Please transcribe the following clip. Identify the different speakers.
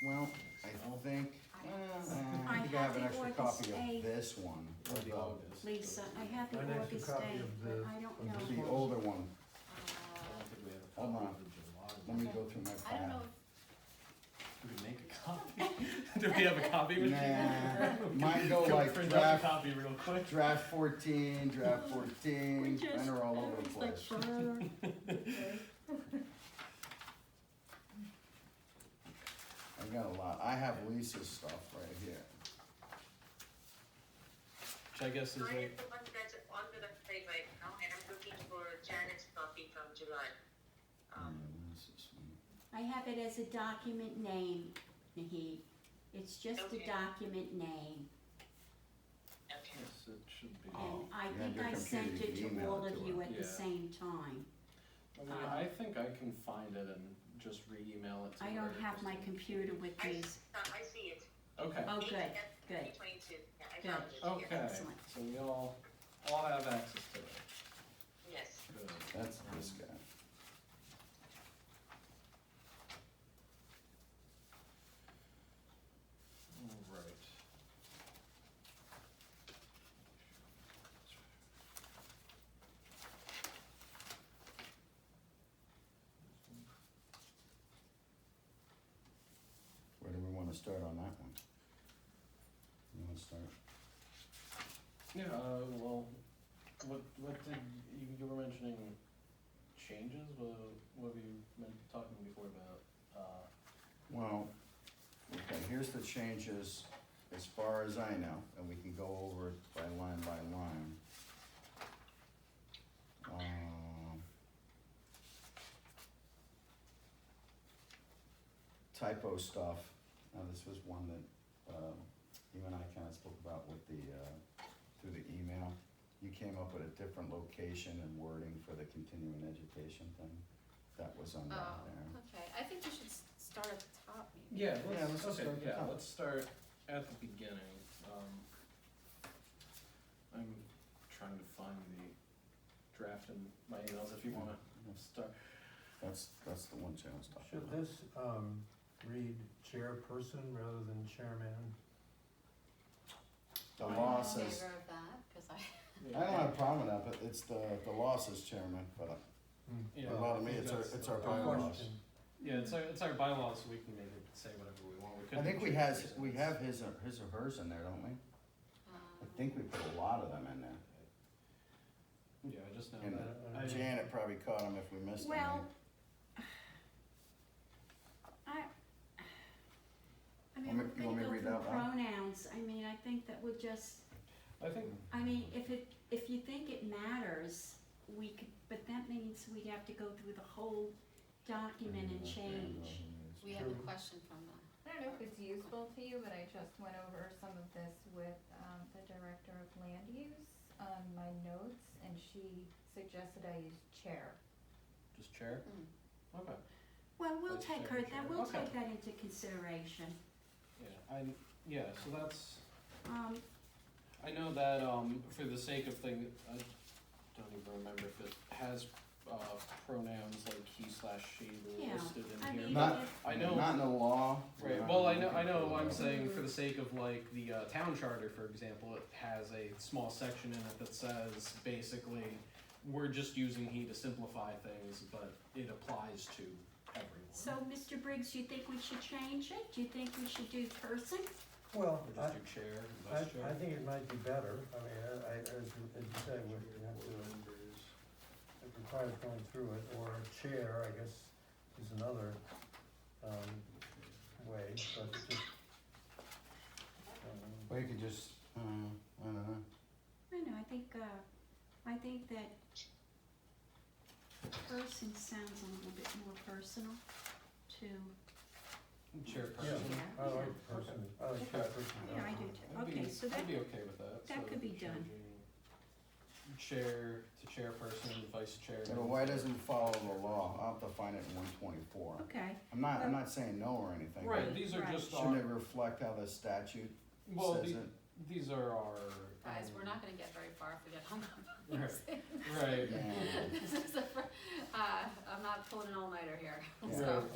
Speaker 1: Well, I think, uh, I
Speaker 2: I
Speaker 1: think I have an
Speaker 2: have the
Speaker 1: extra
Speaker 2: August
Speaker 1: copy
Speaker 2: eighth.
Speaker 1: of this one,
Speaker 3: Or the
Speaker 1: of the-
Speaker 3: August.
Speaker 2: Lisa, I have the
Speaker 4: An extra
Speaker 2: August
Speaker 4: copy
Speaker 2: date,
Speaker 4: of
Speaker 2: but
Speaker 4: the-
Speaker 2: I don't
Speaker 4: of
Speaker 2: know.
Speaker 1: the older one.
Speaker 3: I don't think we have a
Speaker 1: Hold
Speaker 3: copy
Speaker 1: on.
Speaker 3: of the July
Speaker 1: Let
Speaker 3: one.
Speaker 1: me go through my
Speaker 5: Uh, I don't know,
Speaker 1: file.
Speaker 3: We could make a copy. Do we have a copy machine?
Speaker 1: Nah, mine go
Speaker 3: Go
Speaker 1: like
Speaker 3: print out a
Speaker 1: draft,
Speaker 3: copy real quick.
Speaker 1: draft fourteen, draft fourteen,
Speaker 2: We
Speaker 1: mine are all over the
Speaker 2: just- I was
Speaker 1: place.
Speaker 2: like, "Brr."
Speaker 1: I've got a lot, I have Lisa's stuff right here.
Speaker 3: Which I guess is
Speaker 6: Mine
Speaker 3: like,
Speaker 6: is the one that's on the website right now, and I'm looking for Janet's copy from July. Um,
Speaker 1: Yeah, Lisa's Mm, one.
Speaker 2: I have it as a document name, Naheed. It's just a
Speaker 6: Okay.
Speaker 2: document name,
Speaker 3: Mm.
Speaker 6: okay.
Speaker 3: yes, it should be.
Speaker 2: and I
Speaker 1: You have
Speaker 2: think
Speaker 1: Oh, your
Speaker 2: I
Speaker 1: computer,
Speaker 2: sent
Speaker 1: you
Speaker 2: it
Speaker 1: can
Speaker 2: to
Speaker 1: email
Speaker 2: all
Speaker 1: it
Speaker 2: of
Speaker 1: to
Speaker 2: you
Speaker 1: her.
Speaker 2: at the
Speaker 3: Yeah.
Speaker 2: same time.
Speaker 3: I mean, I think I can find it and just re-email it to
Speaker 2: I
Speaker 3: her
Speaker 2: don't have
Speaker 3: just
Speaker 2: my
Speaker 3: in-
Speaker 2: computer with
Speaker 6: I,
Speaker 2: these.
Speaker 6: uh, I see it.
Speaker 3: Okay,
Speaker 2: Oh, good, good.
Speaker 6: Three twenty-two, yeah, I
Speaker 2: Good.
Speaker 6: found it, yeah.
Speaker 3: okay,
Speaker 2: Oh, Excellent.
Speaker 3: so we all, all have access to it,
Speaker 6: yes.
Speaker 3: good.
Speaker 1: That's this guy.
Speaker 3: Alright.
Speaker 1: Where do we wanna start on that one? You wanna start?
Speaker 3: Yeah, uh, well, what, what did, you, you were mentioning changes, what, what were you men- talking before about, uh,
Speaker 1: Well, okay, here's the changes as far as I know, and we can go over it by line by line. Um, Typo stuff, now this was one that, um, you and I kinda spoke about with the, uh, through the email. You came up with a different location and wording for the continuing education thing, that was on that
Speaker 5: oh,
Speaker 1: there.
Speaker 5: okay, I think you should s- start at the top, maybe.
Speaker 3: Yeah,
Speaker 1: Yeah,
Speaker 3: let's,
Speaker 1: let's just
Speaker 3: okay,
Speaker 1: start at the
Speaker 3: yeah,
Speaker 1: top.
Speaker 3: let's start at the beginning, um. I'm trying to find the draft in my emails, if you wanna start,
Speaker 1: That's, that's the one challenge talking
Speaker 4: Should
Speaker 1: about.
Speaker 4: this, um, read chairperson rather than chairman?
Speaker 1: The law
Speaker 5: I'm in
Speaker 1: says,
Speaker 5: favor of that, cause I,
Speaker 1: I don't have a problem with that, but it's the, the law says chairman, but
Speaker 4: Hmm.
Speaker 3: Yeah,
Speaker 1: a lot
Speaker 3: I
Speaker 1: of me,
Speaker 3: think
Speaker 1: it's our,
Speaker 3: that's
Speaker 1: it's our
Speaker 3: the-
Speaker 1: bylaws.
Speaker 4: Question.
Speaker 3: Yeah, it's our, it's our bylaws, so we can make it say whatever we want, we could.
Speaker 1: I think we
Speaker 3: change
Speaker 1: has,
Speaker 3: it.
Speaker 1: we have his or, his or hers in there, don't we?
Speaker 5: um.
Speaker 1: I think we put a lot of them in there.
Speaker 3: Yeah, I just know
Speaker 1: And
Speaker 3: that, I,
Speaker 4: I- I-
Speaker 1: Janet probably caught them if we missed them.
Speaker 2: Well, I, I mean,
Speaker 1: Want me- want me to
Speaker 2: we're gonna go
Speaker 1: read
Speaker 2: through
Speaker 1: that one?
Speaker 2: pronouns, I mean, I think that we'll just,
Speaker 3: I think,
Speaker 2: I mean, if it, if you think it matters, we could, but that means we'd have to go through the whole document
Speaker 1: Mm,
Speaker 2: and change.
Speaker 5: We have a
Speaker 4: Sure.
Speaker 5: question from the,
Speaker 7: I don't know if it's useful to you, but I just went over some of this with, um, the director of land use on my notes, and she suggested I use chair.
Speaker 3: just chair,
Speaker 5: mm,
Speaker 3: okay,
Speaker 2: Well, we'll
Speaker 3: Vice
Speaker 2: take her, that,
Speaker 3: Chair.
Speaker 2: we'll
Speaker 3: Okay.
Speaker 2: take that into consideration.
Speaker 3: yeah, I, yeah, so that's,
Speaker 2: Um,
Speaker 3: I know that, um, for the sake of thing, I don't even remember if it has, uh, pronouns like he slash she
Speaker 2: Yeah,
Speaker 3: listed in
Speaker 2: I
Speaker 3: here.
Speaker 2: mean,
Speaker 1: Not-
Speaker 2: if-
Speaker 3: I know,
Speaker 1: Not in the law.
Speaker 3: right,
Speaker 1: Not
Speaker 3: well, I
Speaker 1: in
Speaker 3: know, I know,
Speaker 1: the-
Speaker 3: I'm saying for the sake of like the, uh, town charter, for example, it has a small section in it that says basically, we're just using he to simplify things, but it applies to everyone.
Speaker 2: so, Mr. Briggs, you think we should change it? Do you think we should do person?
Speaker 4: Well,
Speaker 3: Or
Speaker 4: I,
Speaker 3: just do chair,
Speaker 4: I,
Speaker 3: vice chair.
Speaker 4: I think it might be better, I mean, I, I, as you as you say, we we have to, it requires going through it, or chair, I guess, is another, um, way, but it just. um,
Speaker 1: Well, you could just, uh, I don't know.
Speaker 2: I know, I think, uh, I think that person sounds a little bit more personal to,
Speaker 4: Yeah,
Speaker 3: Chairperson.
Speaker 4: I like person, I like
Speaker 3: Okay.
Speaker 4: chairperson.
Speaker 2: yeah, I do
Speaker 3: I'd
Speaker 2: too.
Speaker 3: be-
Speaker 2: Okay, so that,
Speaker 3: I'd be okay with that.
Speaker 2: that
Speaker 3: so
Speaker 2: could be done.
Speaker 3: changing Chair to chairperson, vice chair.
Speaker 1: But why doesn't it follow the law? I'll have to find it in one twenty-four.
Speaker 2: okay,
Speaker 1: I'm not, I'm not saying no or anything. but
Speaker 3: Right, these are
Speaker 2: Right.
Speaker 3: just
Speaker 1: Shouldn't
Speaker 3: our,
Speaker 1: it reflect how the statute
Speaker 3: well,
Speaker 1: says
Speaker 3: the,
Speaker 1: it?
Speaker 3: these are our.
Speaker 5: guys,
Speaker 3: um,
Speaker 5: we're not gonna get very far if we get hung up on
Speaker 3: Right.
Speaker 5: these things.
Speaker 3: Right.
Speaker 1: Yeah.
Speaker 5: This is the fir- uh, I'm not pulling an all-nighter here,
Speaker 1: Yeah.
Speaker 5: so.
Speaker 3: Right.